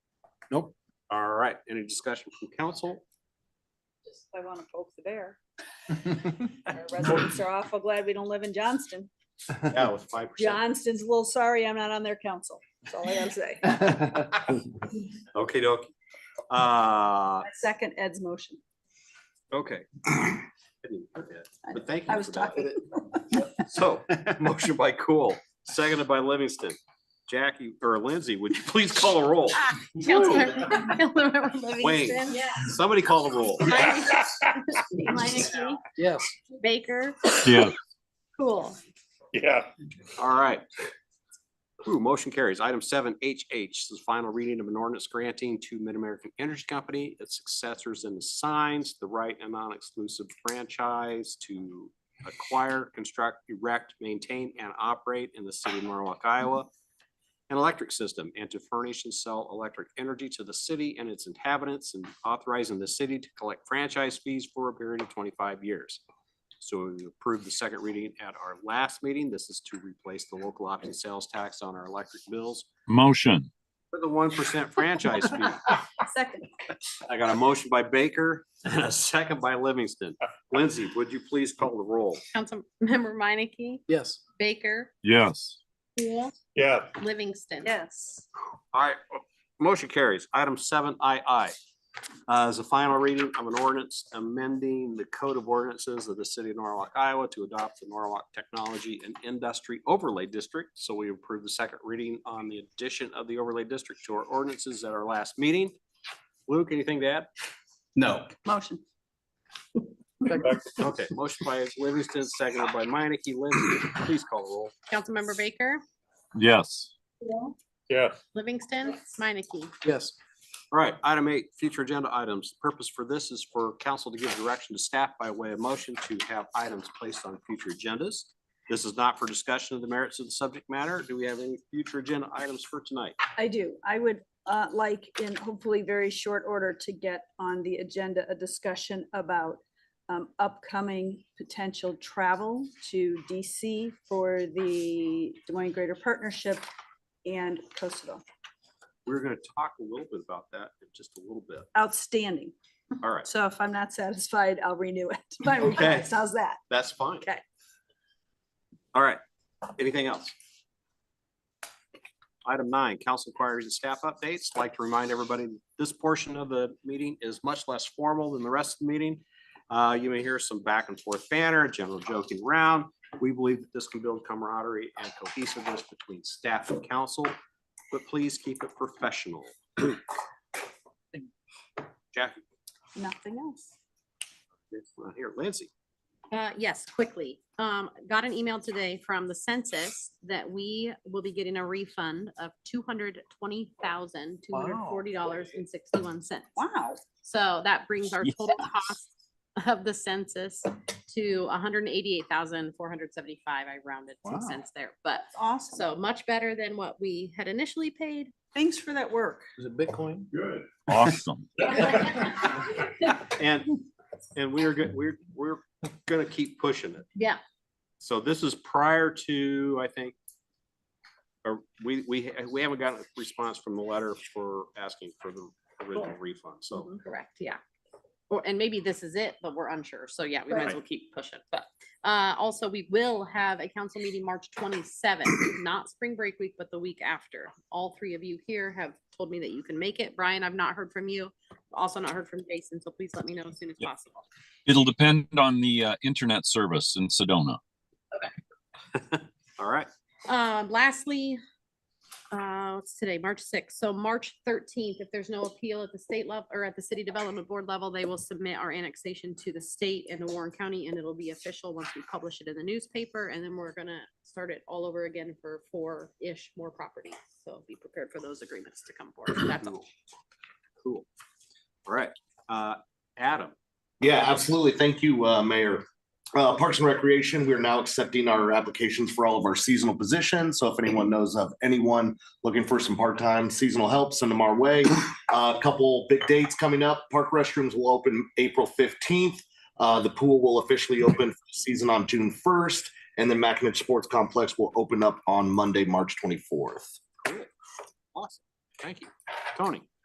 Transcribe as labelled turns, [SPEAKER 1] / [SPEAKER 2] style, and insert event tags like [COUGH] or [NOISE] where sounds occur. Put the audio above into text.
[SPEAKER 1] Nope. All right, any discussion from council?
[SPEAKER 2] Just, I want to poke the bear. Our residents are awful glad we don't live in Johnston.
[SPEAKER 3] Yeah, with five percent.
[SPEAKER 2] Johnston's a little sorry I'm not on their council. That's all I gotta say.
[SPEAKER 1] Okay, dokie. Uh,
[SPEAKER 2] I Second Ed's motion.
[SPEAKER 1] okay. I didn't hear that, But thank
[SPEAKER 2] I
[SPEAKER 1] you
[SPEAKER 2] was
[SPEAKER 1] for that.
[SPEAKER 2] talking. [LAUGHS]
[SPEAKER 1] So, motion by Cool, seconded by Livingston. Jackie or Lindsay, would you please call a
[SPEAKER 2] [LAUGHS]
[SPEAKER 1] roll?
[SPEAKER 4] Councilmember
[SPEAKER 1] Wayne.
[SPEAKER 4] Livingston.
[SPEAKER 1] Somebody call a roll.
[SPEAKER 4] Meineke- Meineke,
[SPEAKER 5] Yes.
[SPEAKER 4] Baker,
[SPEAKER 6] Yeah.
[SPEAKER 4] Cool.
[SPEAKER 3] Yeah.
[SPEAKER 1] All right. Ooh, motion carries. Item seven H H, this is final reading of an ordinance granting to Mid-American Energy Company, its successors and assigns the right and non-exclusive franchise to acquire, construct, erect, maintain, and operate in the city of Norwalk, Iowa, an electric system and to furnish and sell electric energy to the city and its inhabitants and authorizing the city to collect franchise fees for a period of twenty-five years. So we approved the second reading at our last meeting. This is to replace the local option sales tax on our electric bills
[SPEAKER 6] Motion.
[SPEAKER 1] for the one percent franchise fee.
[SPEAKER 2] Second.
[SPEAKER 1] I got a motion by Baker [LAUGHS] and a second by Livingston. Lindsay, would you please call the roll?
[SPEAKER 4] Councilmember [LAUGHS] Meineke,
[SPEAKER 5] Yes.
[SPEAKER 4] Baker,
[SPEAKER 6] Yes.
[SPEAKER 4] Cool,
[SPEAKER 3] Yeah.
[SPEAKER 4] Livingston.
[SPEAKER 2] Yes.
[SPEAKER 1] All right, motion carries. Item seven I I. Uh, is a final reading of an ordinance amending the code of ordinances of the city of Norwalk, Iowa to adopt the Norwalk Technology and Industry Overlay District. So we approved the second reading on the addition of the overlay district to our ordinances at our last meeting. Luke, anything to add?
[SPEAKER 7] No,
[SPEAKER 2] Motion.
[SPEAKER 1] Okay, motion by Livingston, seconded by Minneke. Lindsay, please call the roll.
[SPEAKER 4] Councilmember Baker,
[SPEAKER 6] Yes.
[SPEAKER 4] Cool,
[SPEAKER 3] Yeah.
[SPEAKER 4] Livingston, Meineke.
[SPEAKER 5] Yes.
[SPEAKER 1] All right, item eight, future agenda items. Purpose for this is for council to give direction to staff by way of motion to have items placed on future agendas. This is not for discussion of the merits of the subject matter. Do we have any future agenda items for tonight?
[SPEAKER 2] I do. I would uh, like in hopefully very short order to get on the agenda a discussion about um, upcoming potential travel to DC for the Des Moines Greater Partnership and Kosovo.
[SPEAKER 1] We're gonna talk a little bit about that in just a little bit.
[SPEAKER 2] Outstanding.
[SPEAKER 1] All right,
[SPEAKER 2] So if I'm not satisfied, I'll renew it. [LAUGHS] My
[SPEAKER 1] Okay.
[SPEAKER 2] request. How's that?
[SPEAKER 1] that's fine.
[SPEAKER 2] Okay.
[SPEAKER 1] All right, anything else? Item nine, council inquiries and staff updates. Like to remind everybody, this portion of the meeting is much less formal than the rest of the meeting. Uh, you may hear some back and forth banner, general joking around. We believe that this can build camaraderie and cohesiveness between staff and council, but please keep it professional. [CLEARS THROAT] Jackie,
[SPEAKER 2] Nothing else.
[SPEAKER 1] it's not here, Lindsay.
[SPEAKER 4] Uh, yes, quickly. Um, got an email today from the census that we will be getting a refund of two hundred twenty thousand, two hundred forty dollars and sixty-one cents.
[SPEAKER 2] Wow.
[SPEAKER 4] So that brings our total cost of the census to hundred and eighty-eight thousand, four hundred seventy-five. I rounded
[SPEAKER 5] Wow.
[SPEAKER 4] some cents there, but
[SPEAKER 2] That's awesome.
[SPEAKER 4] so much better than what we had initially paid.
[SPEAKER 2] [LAUGHS]
[SPEAKER 4] [LAUGHS]
[SPEAKER 2] Thanks for that work.
[SPEAKER 5] Is it Bitcoin?
[SPEAKER 3] Good.
[SPEAKER 6] Awesome.
[SPEAKER 1] And, and we're good, we're, we're gonna keep pushing it.
[SPEAKER 4] Yeah,
[SPEAKER 1] So this is prior to, I think, or we, we, we haven't gotten a response from the letter for asking for the original refund, so.
[SPEAKER 4] correct, yeah. Or, and maybe this is it, but we're unsure. So yeah, we might as well keep pushing, but, uh, also we will have a council meeting March twenty-seventh, [COUGHS] not spring break week, but the week after. All three of you here have told me that you can make it. Brian, I've not heard from you. Also not heard from Jason, so please let me know as soon as
[SPEAKER 6] Yeah.
[SPEAKER 4] possible.
[SPEAKER 6] It'll depend on the uh, internet service in Sedona.
[SPEAKER 1] All right,
[SPEAKER 4] Um, lastly, uh, what's today, March sixth, so March thirteenth, if there's no appeal at the state level or at the city development board level, they will submit our annexation to the state and to Warren County, and it'll be official once we publish it in the newspaper, and then we're gonna start it all over again for four-ish more properties, so be prepared for those agreements to come forward, that's all.
[SPEAKER 1] cool. All right, uh, Adam,
[SPEAKER 3] Yeah, absolutely. Thank you, uh, Mayor. Uh, Parks and Recreation, we are now accepting our applications for all of our seasonal positions. So if anyone knows of anyone looking for some part-time seasonal help, send them our way. Uh, A couple big dates coming up. Park restrooms will open April fifteenth. Uh, the pool will officially open for the season on June first, and then Mackinac Sports Complex will open up on Monday, March twenty-fourth.
[SPEAKER 1] awesome, thank you. Tony?